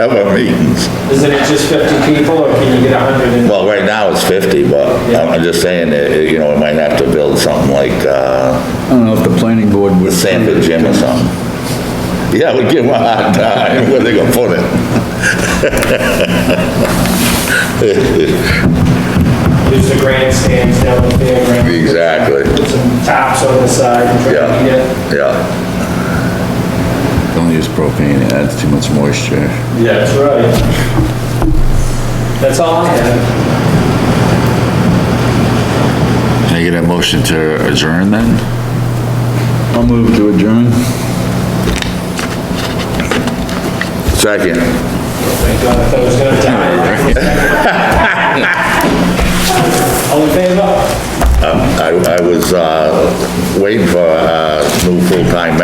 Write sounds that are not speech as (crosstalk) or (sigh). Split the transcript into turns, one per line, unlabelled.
of our meetings.
Isn't it just 50 people, or can you get 100 in?
Well, right now it's 50, but I'm I'm just saying that, you know, we might have to build something like, uh,
I don't know if the planning board
the
would.
Sanford Gym or something. Yeah, we give them a hard time, (laughs) where they gonna put it?
There's the grandstands down there, right?
Exactly,
Put some tops on the side and try to get it.
yeah, yeah.
Don't use propane, it adds too much moisture.
That's right. That's all I have.
Can I get a motion to adjourn then? I'll move to adjourn.
Second.
Thank God, I thought I was gonna die.
(laughs)
All in favor?
I, I was, uh, waiting for a new full-time